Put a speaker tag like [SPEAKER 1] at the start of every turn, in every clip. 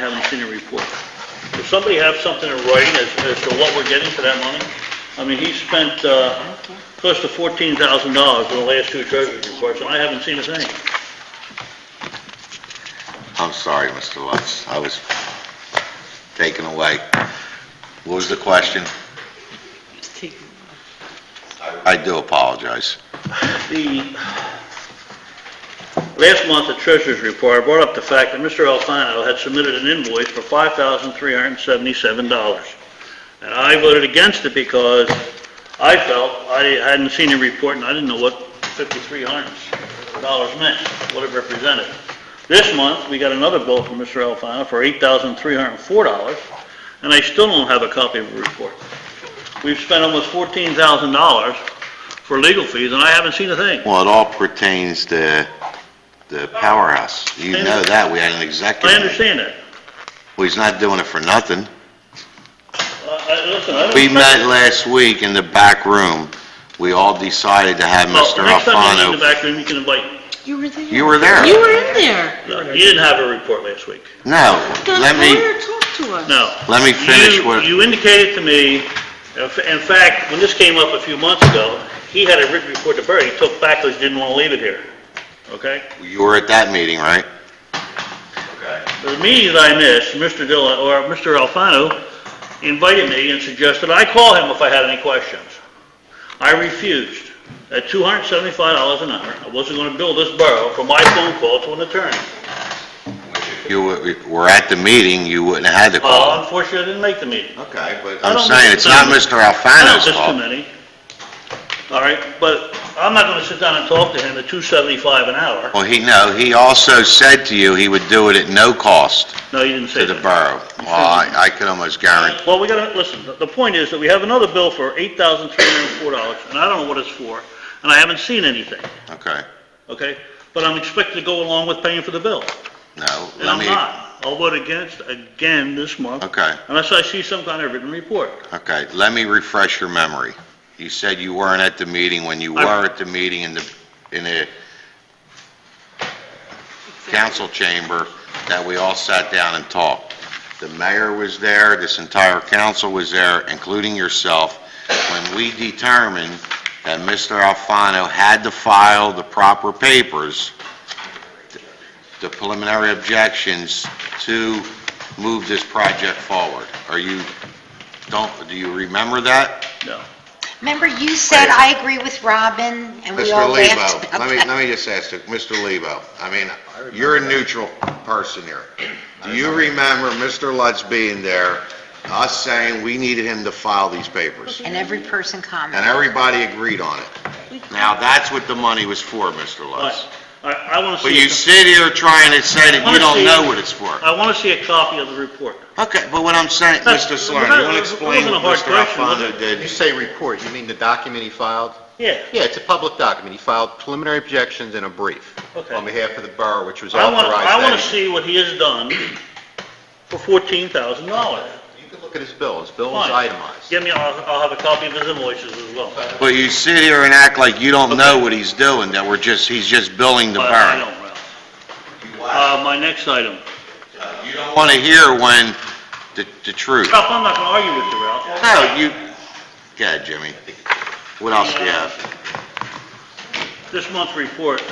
[SPEAKER 1] haven't seen a report.
[SPEAKER 2] Does somebody have something in writing as, as to what we're getting for that money? I mean, he spent, uh, close to fourteen thousand dollars in the last two treasurer's reports, and I haven't seen a thing.
[SPEAKER 3] I'm sorry, Mr. Lutz, I was taken away. What was the question? I do apologize.
[SPEAKER 2] The, last month, the treasurer's report brought up the fact that Mr. Alfano had submitted an invoice for five thousand three hundred and seventy-seven dollars. And I voted against it because I felt I hadn't seen a report and I didn't know what fifty-three hundred dollars meant, what it represented. This month, we got another bill from Mr. Alfano for eight thousand three hundred and four dollars, and I still don't have a copy of the report. We've spent almost fourteen thousand dollars for legal fees, and I haven't seen a thing.
[SPEAKER 3] Well, it all pertains to the powerhouse. You know that, we had an executive.
[SPEAKER 2] I understand that.
[SPEAKER 3] Well, he's not doing it for nothing.
[SPEAKER 2] Uh, I- Listen, I don't...
[SPEAKER 3] We met last week in the back room, we all decided to have
[SPEAKER 2] Well,
[SPEAKER 3] Mr.
[SPEAKER 2] Next time you need the
[SPEAKER 3] Alfano.
[SPEAKER 2] back room, you can invite me.
[SPEAKER 4] You were there.
[SPEAKER 3] You were there.
[SPEAKER 4] You were in there.
[SPEAKER 2] No, You didn't have a report last week.
[SPEAKER 3] No,
[SPEAKER 4] The
[SPEAKER 3] let me,
[SPEAKER 4] lawyer talked to us.
[SPEAKER 2] No.
[SPEAKER 3] let me finish
[SPEAKER 2] You-
[SPEAKER 3] what,
[SPEAKER 2] You indicated to me, uh, f- in fact, when this came up a few months ago, he had a written report to Barry, he took back because he didn't want to leave it here, okay?
[SPEAKER 3] you were at that meeting, right?
[SPEAKER 2] The meetings I missed, Mr. Dillon, or Mr. Alfano invited me and suggested I call him if I had any questions. I refused. At $275 an hour, I wasn't going to bill this borough for my phone call to an attorney.
[SPEAKER 3] You were- were at the meeting, you wouldn't have had the call.
[SPEAKER 2] Uh, Unfortunately, I didn't make the meeting.
[SPEAKER 3] Okay, but...
[SPEAKER 2] I
[SPEAKER 3] I'm
[SPEAKER 2] don't
[SPEAKER 3] saying, it's not
[SPEAKER 2] miss-
[SPEAKER 3] Mr.
[SPEAKER 2] I don't
[SPEAKER 3] Alfano's
[SPEAKER 2] miss too
[SPEAKER 3] fault.
[SPEAKER 2] many. All right, but I'm not going to sit down and talk to him at 275 an hour.
[SPEAKER 3] Well, he, no, he also said to you he would do it at no cost
[SPEAKER 2] No, you didn't say
[SPEAKER 3] to the
[SPEAKER 2] that.
[SPEAKER 3] borough. Well, I, I can almost guarantee,
[SPEAKER 2] Well, we gotta, listen, the- the point is that we have another bill for $8,304, and I don't know what it's for, and I haven't seen anything,
[SPEAKER 3] okay,
[SPEAKER 2] okay? But I'm expected to go along with paying for the bill,
[SPEAKER 3] no,
[SPEAKER 2] and
[SPEAKER 3] let
[SPEAKER 2] I'm
[SPEAKER 3] me...
[SPEAKER 2] not. I'll vote against again this month.
[SPEAKER 3] Okay.
[SPEAKER 2] Unless I see some kind of written report.
[SPEAKER 3] Okay, let me refresh your memory. You said you weren't at the meeting, when you
[SPEAKER 2] I-
[SPEAKER 3] were at the meeting in the, in the council chamber, that we all sat down and talked. The mayor was there, this entire council was there, including yourself, when we determined that Mr. Alfano had to file the proper papers, the preliminary objections, to move this project forward. Are you don't, do you remember that?
[SPEAKER 2] No.
[SPEAKER 5] Remember, you said, I agree with Robin, and we
[SPEAKER 3] Mr.
[SPEAKER 5] all laughed
[SPEAKER 3] Lebo,
[SPEAKER 5] about
[SPEAKER 3] let me,
[SPEAKER 5] that.
[SPEAKER 3] let me just ask you, Mr. Lebo, I mean, you're a neutral person here. Do you remember Mr. Lutz being there, us saying we needed him to file these papers?
[SPEAKER 5] And every person
[SPEAKER 3] And
[SPEAKER 5] commented.
[SPEAKER 3] everybody agreed on it. Now, that's what the money was for, Mr.
[SPEAKER 2] All right,
[SPEAKER 3] Lutz.
[SPEAKER 2] All right, I want to see...
[SPEAKER 3] But
[SPEAKER 2] a
[SPEAKER 3] you
[SPEAKER 2] co-
[SPEAKER 3] sit here trying to say that you don't know what it's for.
[SPEAKER 2] I want to see a copy of the report.
[SPEAKER 3] Okay, but what I'm saying,
[SPEAKER 2] That's-
[SPEAKER 3] Mr. Salerno, you want to
[SPEAKER 2] it
[SPEAKER 3] explain
[SPEAKER 2] wasn't a hard
[SPEAKER 3] what Mr.
[SPEAKER 2] question, was
[SPEAKER 3] Alfano
[SPEAKER 2] it?
[SPEAKER 6] When
[SPEAKER 3] did?
[SPEAKER 6] you say report, you mean the document he filed?
[SPEAKER 2] Yeah.
[SPEAKER 6] Yeah, it's a public document. He filed preliminary objections and a brief
[SPEAKER 2] Okay.
[SPEAKER 6] on behalf of the borough, which was
[SPEAKER 2] I
[SPEAKER 6] authorized.
[SPEAKER 2] want, I want to
[SPEAKER 6] that-
[SPEAKER 2] see what he has done for fourteen thousand dollars.
[SPEAKER 6] You can look at his bill. His bill was
[SPEAKER 2] Fine.
[SPEAKER 6] itemized.
[SPEAKER 2] Give me, I'll, I'll have a copy of his invoices as well.
[SPEAKER 3] But you sit here and act like you don't know what he's doing, that we're just, he's just billing the
[SPEAKER 2] But I
[SPEAKER 3] borough.
[SPEAKER 2] don't, Ralph. Uh, my next item.
[SPEAKER 3] You don't want to hear when, the, the truth.
[SPEAKER 2] Ralph, I'm not gonna argue with you, Ralph.
[SPEAKER 3] No, you, yeah, Jimmy. What else do you have?
[SPEAKER 2] This month's report.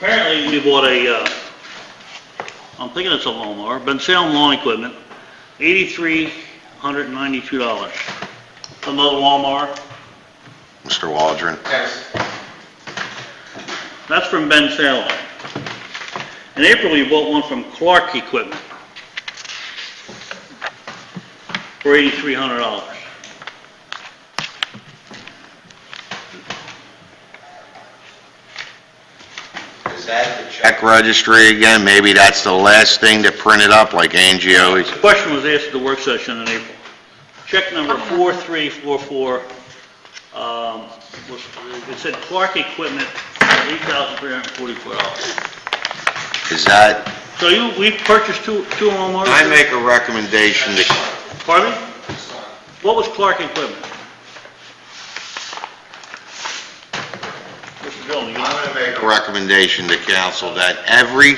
[SPEAKER 2] Apparently, we bought a, uh, I'm thinking it's a lawnmower, Ben Salem Lawn Equipment, eighty-three hundred and ninety-two dollars. Another lawnmower.
[SPEAKER 3] Mr. Waldron?
[SPEAKER 2] That's from Ben Salem. In April, we bought one from Clark Equipment for $8,300.
[SPEAKER 3] Is that the check registry again? Maybe that's the last thing that printed up like Angie always.
[SPEAKER 2] The question was asked at the work session in April. Check number 4344, um, was, it said Clark Equipment, $8,344.
[SPEAKER 3] Is that,
[SPEAKER 2] So you, we purchased two, two lawnmowers?
[SPEAKER 3] I make a recommendation to,
[SPEAKER 2] Pardon me? What was Clark Equipment? Mr. Dillon, you know?
[SPEAKER 3] I make a recommendation to council that every